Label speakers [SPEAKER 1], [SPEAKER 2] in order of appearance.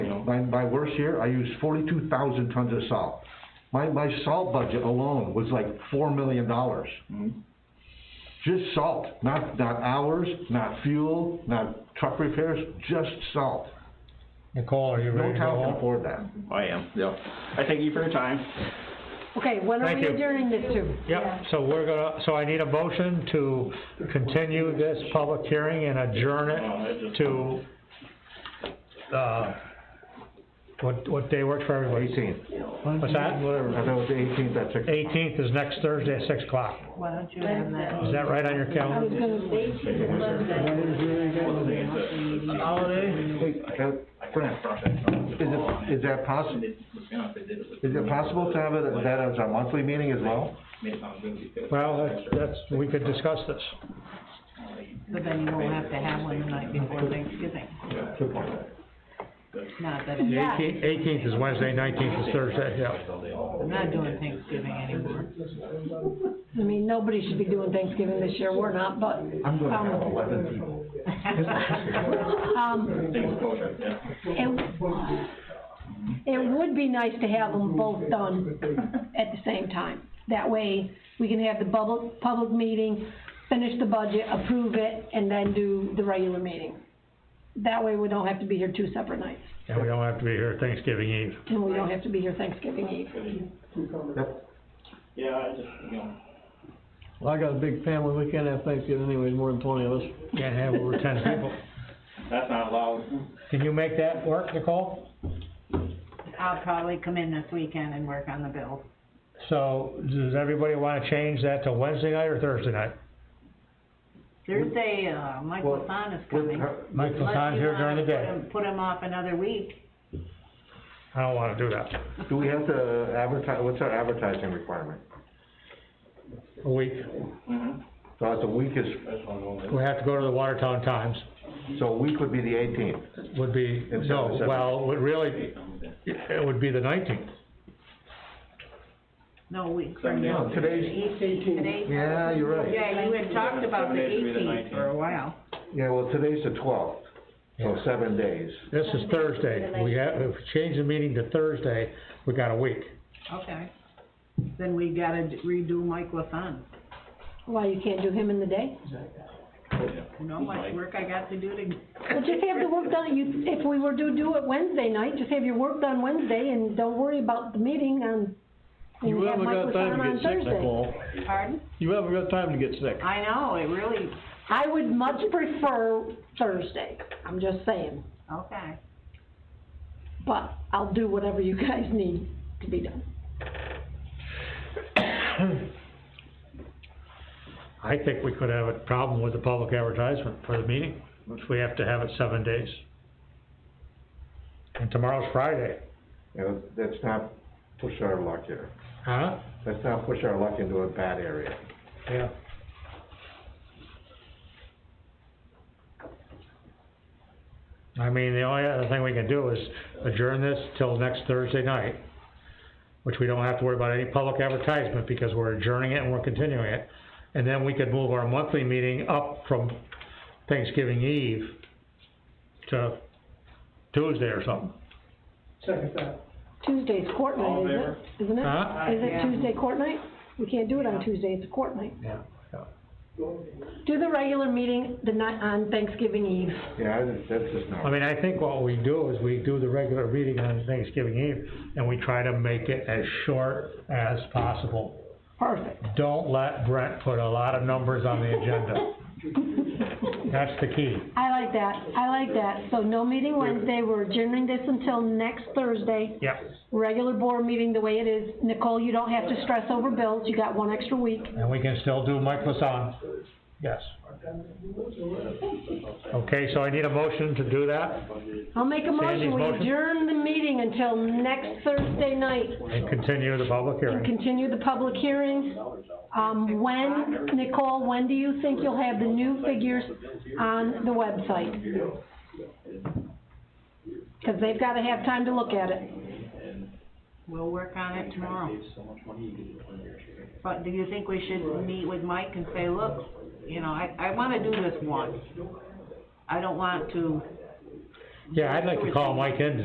[SPEAKER 1] my, my worst year, I used forty-two thousand tons of salt. My, my salt budget alone was like four million dollars.
[SPEAKER 2] Mm-hmm.
[SPEAKER 1] Just salt, not, not hours, not fuel, not truck repairs, just salt.
[SPEAKER 2] Nicole, are you
[SPEAKER 1] No
[SPEAKER 2] ready to go
[SPEAKER 1] town can
[SPEAKER 2] home?
[SPEAKER 1] afford that.
[SPEAKER 3] I am, yeah. I thank you for your time.
[SPEAKER 4] Okay, when are
[SPEAKER 2] Thank
[SPEAKER 4] we
[SPEAKER 2] you.
[SPEAKER 4] adjourning this to?
[SPEAKER 2] Yep, so we're gonna, so I need a motion to continue this public hearing and adjourn it to, uh, what, what day works for everybody?
[SPEAKER 1] Eighteenth.
[SPEAKER 2] What's that?
[SPEAKER 1] I thought it was the eighteenth, that's it.
[SPEAKER 2] Eighteenth is next Thursday at six o'clock.
[SPEAKER 5] Why don't you have that?
[SPEAKER 2] Is that right on your
[SPEAKER 4] I was
[SPEAKER 2] calendar?
[SPEAKER 4] gonna say,
[SPEAKER 1] Hey, uh, Frank, is it, is that possible, is it possible to have it, that as our monthly meeting as well?
[SPEAKER 2] Well, that's, that's, we could discuss this.
[SPEAKER 5] But then you won't have to have one the night before Thanksgiving. Not that, I'm
[SPEAKER 4] Yeah.
[SPEAKER 2] Eighteenth, eighteenth is Wednesday, nineteenth is Thursday, yeah.
[SPEAKER 5] I'm not doing Thanksgiving anymore.
[SPEAKER 4] I mean, nobody should be doing Thanksgiving this year, we're not, but,
[SPEAKER 1] I'm gonna have eleven people.
[SPEAKER 4] um, it, it would be nice to have them both done at the same time. That way, we can have the public, public meeting, finish the budget, approve it, and then do the regular meeting. That way, we don't have to be here two separate nights,
[SPEAKER 2] And we don't have to be here Thanksgiving Eve.
[SPEAKER 4] and we don't have to be here Thanksgiving Eve.
[SPEAKER 1] Yep.
[SPEAKER 3] Yeah, I just, you know.
[SPEAKER 6] Well, I got a big family, we can't have Thanksgiving anyways, more than twenty of us.
[SPEAKER 2] Can't have over ten people.
[SPEAKER 3] That's not allowed.
[SPEAKER 2] Can you make that work, Nicole?
[SPEAKER 5] I'll probably come in this weekend and work on the bill.
[SPEAKER 2] So, does everybody wanna change that to Wednesday night or Thursday night?
[SPEAKER 5] Thursday, uh, Michael
[SPEAKER 1] Well,
[SPEAKER 5] Lasan is coming.
[SPEAKER 2] Mike
[SPEAKER 5] Unless
[SPEAKER 2] Lasan's
[SPEAKER 5] you
[SPEAKER 2] here during the
[SPEAKER 5] wanna put
[SPEAKER 2] day.
[SPEAKER 5] him- Put him off another week.
[SPEAKER 2] I don't wanna do that.
[SPEAKER 1] Do we have to advertise, what's our advertising requirement?
[SPEAKER 2] A week.
[SPEAKER 1] So it's a week is,
[SPEAKER 2] We have to go to the Watertown Times,
[SPEAKER 1] so a week would be the eighteenth.
[SPEAKER 2] would be,
[SPEAKER 1] It's
[SPEAKER 2] no,
[SPEAKER 1] seven,
[SPEAKER 2] well, would really, it would be the nineteenth.
[SPEAKER 5] No, week from
[SPEAKER 1] No,
[SPEAKER 5] now.
[SPEAKER 1] today's-
[SPEAKER 5] Today's-
[SPEAKER 1] Yeah, Ah, you're right.
[SPEAKER 5] Yeah, you had talked about the
[SPEAKER 3] Seven days would be the
[SPEAKER 5] eighteenth for a while.
[SPEAKER 1] Yeah, well, today's the twelfth, so
[SPEAKER 2] Yeah.
[SPEAKER 1] seven days.
[SPEAKER 2] This is Thursday, we have, if we change the meeting to Thursday, we got a week.
[SPEAKER 5] Okay. Then we gotta redo Mike Lasan.
[SPEAKER 4] Why, you can't do him in the day?
[SPEAKER 5] You know how much work I got to do to.
[SPEAKER 4] Well, just have the work done, you, if we were to do it Wednesday night, just have your work done Wednesday and don't worry about the meeting on, and
[SPEAKER 6] You
[SPEAKER 4] have
[SPEAKER 6] haven't
[SPEAKER 4] Mike
[SPEAKER 6] got
[SPEAKER 4] Lasana
[SPEAKER 6] time to
[SPEAKER 4] on
[SPEAKER 6] get sick,
[SPEAKER 4] Thursday.
[SPEAKER 6] Nicole.
[SPEAKER 5] Pardon?
[SPEAKER 6] You haven't got time to get sick.
[SPEAKER 5] I know, it really,
[SPEAKER 4] I would much prefer Thursday, I'm just saying,
[SPEAKER 5] okay.
[SPEAKER 4] but I'll do whatever you guys need to be done.
[SPEAKER 2] I think we could have a problem with the public advertisement for the meeting, if we have to have it seven days. And tomorrow's Friday,
[SPEAKER 1] You know, let's not push our luck here.
[SPEAKER 2] huh?
[SPEAKER 1] Let's not push our luck into a bad area.
[SPEAKER 2] Yeah. I mean, the only other thing we can do is adjourn this till next Thursday night, which we don't have to worry about any public advertisement because we're adjourning it and we're continuing it. And then we could move our monthly meeting up from Thanksgiving Eve to Tuesday or something.
[SPEAKER 4] Tuesday's court night,
[SPEAKER 3] All in
[SPEAKER 4] isn't it? Isn't it?
[SPEAKER 2] Huh?
[SPEAKER 4] Is it
[SPEAKER 5] Yeah.
[SPEAKER 4] Tuesday court night? We can't do it on Tuesday, it's a court night.
[SPEAKER 2] Yeah.
[SPEAKER 4] Do the regular meeting the night, on Thanksgiving Eve.
[SPEAKER 1] Yeah, I- that's just
[SPEAKER 2] I
[SPEAKER 1] not,
[SPEAKER 2] mean, I think what we do is we do the regular meeting on Thanksgiving Eve, and we try to make it as short as possible.
[SPEAKER 4] Perfect.
[SPEAKER 2] Don't let Brent put a lot of numbers on the agenda. That's the key.
[SPEAKER 4] I like that, I like that. So no meeting Wednesday, we're adjourning this until next Thursday.
[SPEAKER 2] Yep.
[SPEAKER 4] Regular board meeting the way it is. Nicole, you don't have to stress over bills, you got one extra week.
[SPEAKER 2] And we can still do Mike Lasan. Yes. Okay, so I need a motion to do that
[SPEAKER 4] I'll make a
[SPEAKER 2] Sandy's
[SPEAKER 4] motion, we
[SPEAKER 2] motion?
[SPEAKER 4] adjourn the meeting until next Thursday night
[SPEAKER 2] and continue the public
[SPEAKER 4] and
[SPEAKER 2] hearing.
[SPEAKER 4] continue the public hearing. Um, when, Nicole, when do you think you'll have the new figures on the website? Cause they've gotta have time to look at it.
[SPEAKER 5] We'll work on it tomorrow. But do you think we should meet with Mike and say, look, you know, I, I wanna do this once. I don't want to
[SPEAKER 2] Yeah, I'd like to call Mike in